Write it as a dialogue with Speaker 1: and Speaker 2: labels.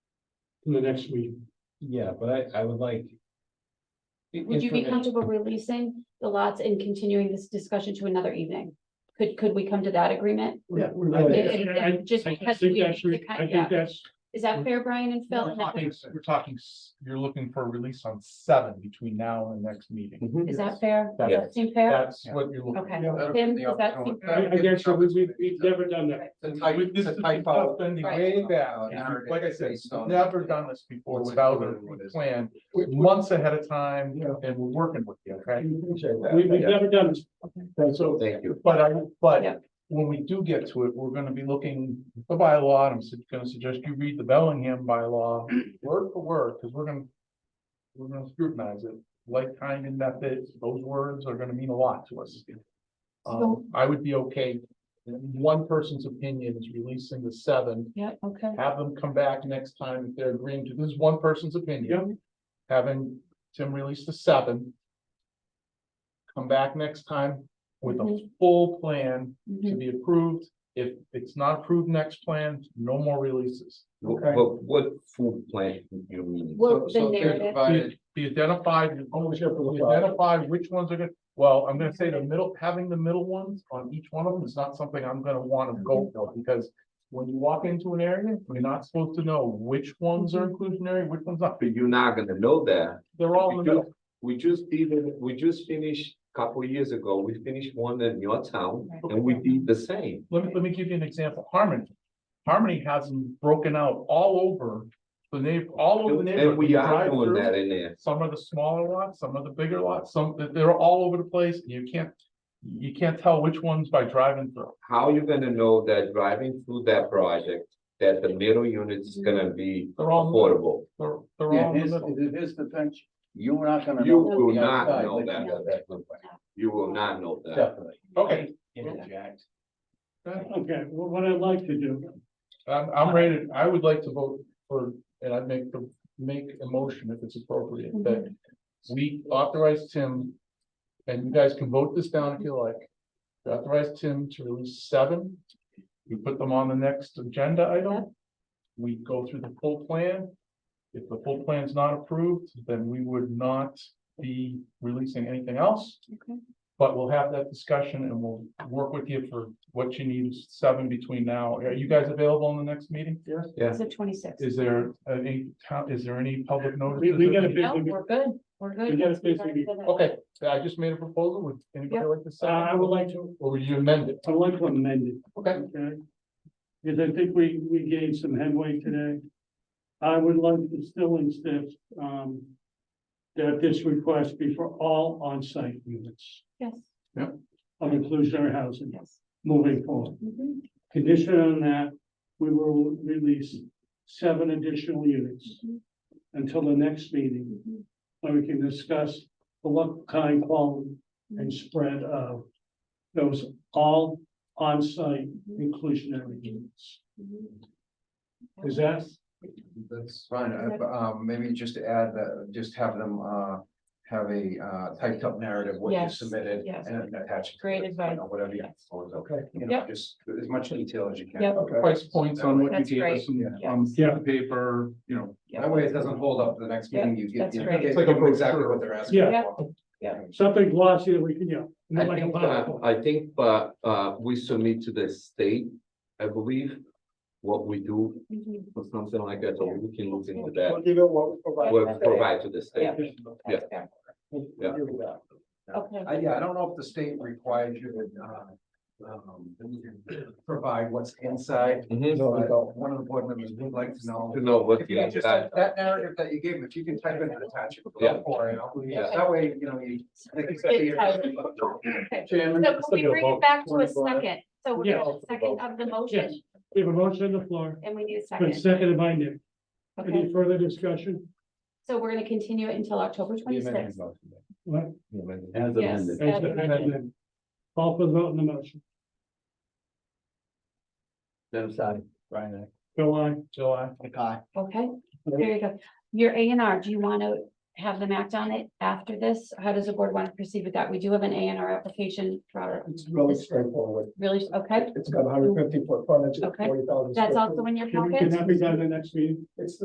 Speaker 1: in the next week.
Speaker 2: Yeah, but I, I would like. i-
Speaker 3: Would you be
Speaker 2: information-
Speaker 3: comfortable releasing the lots and continuing this discussion to another evening? Could, could we come to that agreement?
Speaker 1: Yeah.
Speaker 2: I
Speaker 3: It-
Speaker 2: think-
Speaker 3: it- it- Just
Speaker 1: I
Speaker 3: because
Speaker 1: think
Speaker 3: we,
Speaker 1: that's, re- I think
Speaker 3: yeah.
Speaker 1: that's,
Speaker 3: is that fair, Brian and Phil?
Speaker 4: We're
Speaker 3: And that
Speaker 4: talking, we're talking, s- you're looking for a release on seven between now and the next meeting.
Speaker 3: would- Is that fair? Does that seem fair?
Speaker 2: That's
Speaker 4: Yeah.
Speaker 2: what you're looking.
Speaker 3: Okay.
Speaker 1: Mhm. Yeah.
Speaker 3: Tim, does that seem
Speaker 1: I,
Speaker 3: fair?
Speaker 1: I guess so, we, we- we've never done that.
Speaker 5: It's a type-
Speaker 2: We- this
Speaker 5: it's a
Speaker 2: is
Speaker 5: typo.
Speaker 2: stuff done
Speaker 3: Right.
Speaker 2: Way down,
Speaker 5: Yeah.
Speaker 2: and like I said,
Speaker 5: Based on-
Speaker 2: never done this before
Speaker 5: What-
Speaker 2: without
Speaker 5: what-
Speaker 2: a
Speaker 5: what is-
Speaker 2: plan, months ahead of time, and we're working with you, okay?
Speaker 1: We, we've never done this.
Speaker 2: So,
Speaker 5: Thank you.
Speaker 2: but I,
Speaker 3: Yeah.
Speaker 2: but when we do get to it, we're gonna be looking at the bylaw, and I'm su- gonna suggest you read the Bellingham bylaw word for word, because we're gonna. We're gonna scrutinize it, like kind and method, those words are gonna mean a lot to us. Um, I would be okay, if one person's opinion is releasing the seven,
Speaker 3: Yeah, okay.
Speaker 2: have them come back next time if they're agreeing to, this is one person's opinion. Having Tim release the seven. Come back next time with a
Speaker 3: Mhm.
Speaker 2: full plan to
Speaker 3: Mhm.
Speaker 2: be approved. If it's not approved next plan, no more releases.
Speaker 1: Okay.
Speaker 6: But what food plant you mean?
Speaker 3: Well, the
Speaker 5: So- so they're
Speaker 3: narrative,
Speaker 5: divided.
Speaker 2: Be identified,
Speaker 1: Ownership of the lot.
Speaker 2: identify which ones are good. Well, I'm gonna say the middle, having the middle ones on each one of them is not something I'm gonna wanna go for because. When you walk into an area, you're not supposed to know which ones are inclusionary, which ones not.
Speaker 6: But you're not gonna know that.
Speaker 2: They're all in the
Speaker 6: We
Speaker 2: middle.
Speaker 6: just, we just did, it- we just finished a couple years ago, we finished one in your town and we did the same.
Speaker 2: Let me, let me give you an example. Harmony. Harmony has them broken out all over the neighbor, all over the neighborhood.
Speaker 6: And we
Speaker 2: You
Speaker 6: are
Speaker 2: drive
Speaker 6: doing
Speaker 2: through.
Speaker 6: that in there.
Speaker 2: Some are the smaller lots, some are the bigger lots, some, they're all over the place, and you can't, you can't tell which ones by driving through.
Speaker 6: How you gonna know that driving through that project, that the middle unit is
Speaker 3: Mm-hmm.
Speaker 6: gonna be
Speaker 2: They're all,
Speaker 6: affordable?
Speaker 2: they're, they're all.
Speaker 4: Yeah,
Speaker 2: in
Speaker 4: here's,
Speaker 2: the middle.
Speaker 4: here's the thing, you're not gonna.
Speaker 6: You
Speaker 4: know
Speaker 3: will
Speaker 4: from the
Speaker 6: not
Speaker 4: outside,
Speaker 6: know
Speaker 4: but
Speaker 6: that.
Speaker 4: you know that from-
Speaker 6: You will not know that.
Speaker 4: Definitely.
Speaker 2: Okay.
Speaker 4: Interject.
Speaker 1: Uh, Okay, well, what I'd like to do,
Speaker 2: I'm, I'm ready, I would like to vote for, and I'd make, the make a motion if it's appropriate, that
Speaker 1: Mm-hmm.
Speaker 2: we authorize Tim, and you guys can vote this down if you like, authorize Tim to release seven, we put them on the next agenda item, we go through the full plan. If the full plan's not approved, then we would not be releasing anything else.
Speaker 3: Okay.
Speaker 2: But we'll have that discussion and we'll work with you for what you need seven between now. Are you guys available in the next meeting? Yes.
Speaker 3: Is it twenty-six?
Speaker 2: Is there any, town- is there any public notice?
Speaker 1: We- we gotta be-
Speaker 3: No, we're good, we're good.
Speaker 1: We gotta finish the meeting.
Speaker 2: Okay, I just made a proposal. Would anybody like to
Speaker 1: uh,
Speaker 2: say?
Speaker 1: I would like to,
Speaker 2: Or would you amend it?
Speaker 1: I would like to amend it.
Speaker 2: Okay.
Speaker 1: Okay. Because I think we, we gained some headway today. I would like to still insist, um, that this request be for all on-site units
Speaker 3: Yes,
Speaker 1: of inclusionary housing
Speaker 3: yes.
Speaker 1: moving forward.
Speaker 3: Mhm,
Speaker 1: Condition on that, we will release seven additional units
Speaker 3: mhm,
Speaker 1: until the next meeting,
Speaker 3: mhm.
Speaker 1: where we can discuss the what kind, quality, and spread of those all on-site inclusionary units.
Speaker 3: Mm-hmm.
Speaker 1: Is that?
Speaker 5: That's fine, I- um, maybe just to add that, just have them, uh, have a, uh, typed up narrative what you
Speaker 3: Yes,
Speaker 5: submitted
Speaker 3: yes.
Speaker 5: and attach. it to
Speaker 3: Great
Speaker 5: it, you
Speaker 3: advice.
Speaker 5: know, Whatever you.
Speaker 3: Yes.
Speaker 5: Okay. You know,
Speaker 3: Yep.
Speaker 5: just as much detail as you can.
Speaker 3: Yep.
Speaker 2: Price points on what
Speaker 3: That's
Speaker 2: you gave us
Speaker 3: great.
Speaker 2: on,
Speaker 1: Yeah.
Speaker 2: on paper, you know.
Speaker 3: Yeah.
Speaker 5: That way it doesn't hold up the next meeting, you get,
Speaker 3: that's
Speaker 5: you
Speaker 3: great.
Speaker 5: get
Speaker 2: It's like a
Speaker 5: them exactly
Speaker 2: brochure.
Speaker 5: what they're asking.
Speaker 1: Yeah.
Speaker 3: Yeah.
Speaker 5: for.
Speaker 3: Yeah.
Speaker 1: Something glossy that we can, you know. not
Speaker 6: I
Speaker 1: like a
Speaker 6: think, uh,
Speaker 1: PowerPoint.
Speaker 6: I think, uh, uh, we submit to the state, I believe, what we do
Speaker 3: Mhm.
Speaker 6: or something like that, so we can look into that.
Speaker 1: Give it what we provide.
Speaker 6: We'll provide to the state.
Speaker 3: That's fair. Okay.
Speaker 5: Uh, yeah, I don't know if the state requires you to, uh, um, provide what's inside.
Speaker 6: Mhm.
Speaker 5: So I- One of the board members would like to know.
Speaker 6: To know what
Speaker 5: If you
Speaker 6: you
Speaker 5: could just,
Speaker 6: got.
Speaker 5: that narrative that you gave, him, if you can type in and attach it.
Speaker 6: Yeah.
Speaker 5: for it, I'll-
Speaker 6: Yeah.
Speaker 5: That way, you know, you. they can see
Speaker 3: It's how-
Speaker 5: it.
Speaker 3: okay.
Speaker 2: Chairman.
Speaker 3: So can we bring it back to a second? So we
Speaker 1: Yes.
Speaker 3: have a second of the
Speaker 1: Yes,
Speaker 3: motion
Speaker 1: we have a motion on the floor,
Speaker 3: and we need a
Speaker 1: been
Speaker 3: second.
Speaker 1: seconded by Nick.
Speaker 3: Okay,
Speaker 1: Any further discussion?
Speaker 3: so we're gonna continue it until October twenty-sixth.
Speaker 1: What?
Speaker 4: As
Speaker 3: Yes.
Speaker 4: amended.
Speaker 3: as amended.
Speaker 1: Call for the vote on the motion.
Speaker 4: Then sorry, Brian.
Speaker 1: Bill, I,
Speaker 2: July.
Speaker 4: Okay.
Speaker 3: Okay, there you go. Your A and R, do you want to have them act on it after this? How does the board want to proceed with that? We do have an A and R application for our,
Speaker 7: It's really straightforward.
Speaker 3: really, okay?
Speaker 7: It's got hundred fifty foot frontage,
Speaker 3: Okay.
Speaker 7: forty thousand.
Speaker 3: That's also in your
Speaker 1: can we- can
Speaker 3: packet?
Speaker 1: that be done in the next meeting?
Speaker 7: It's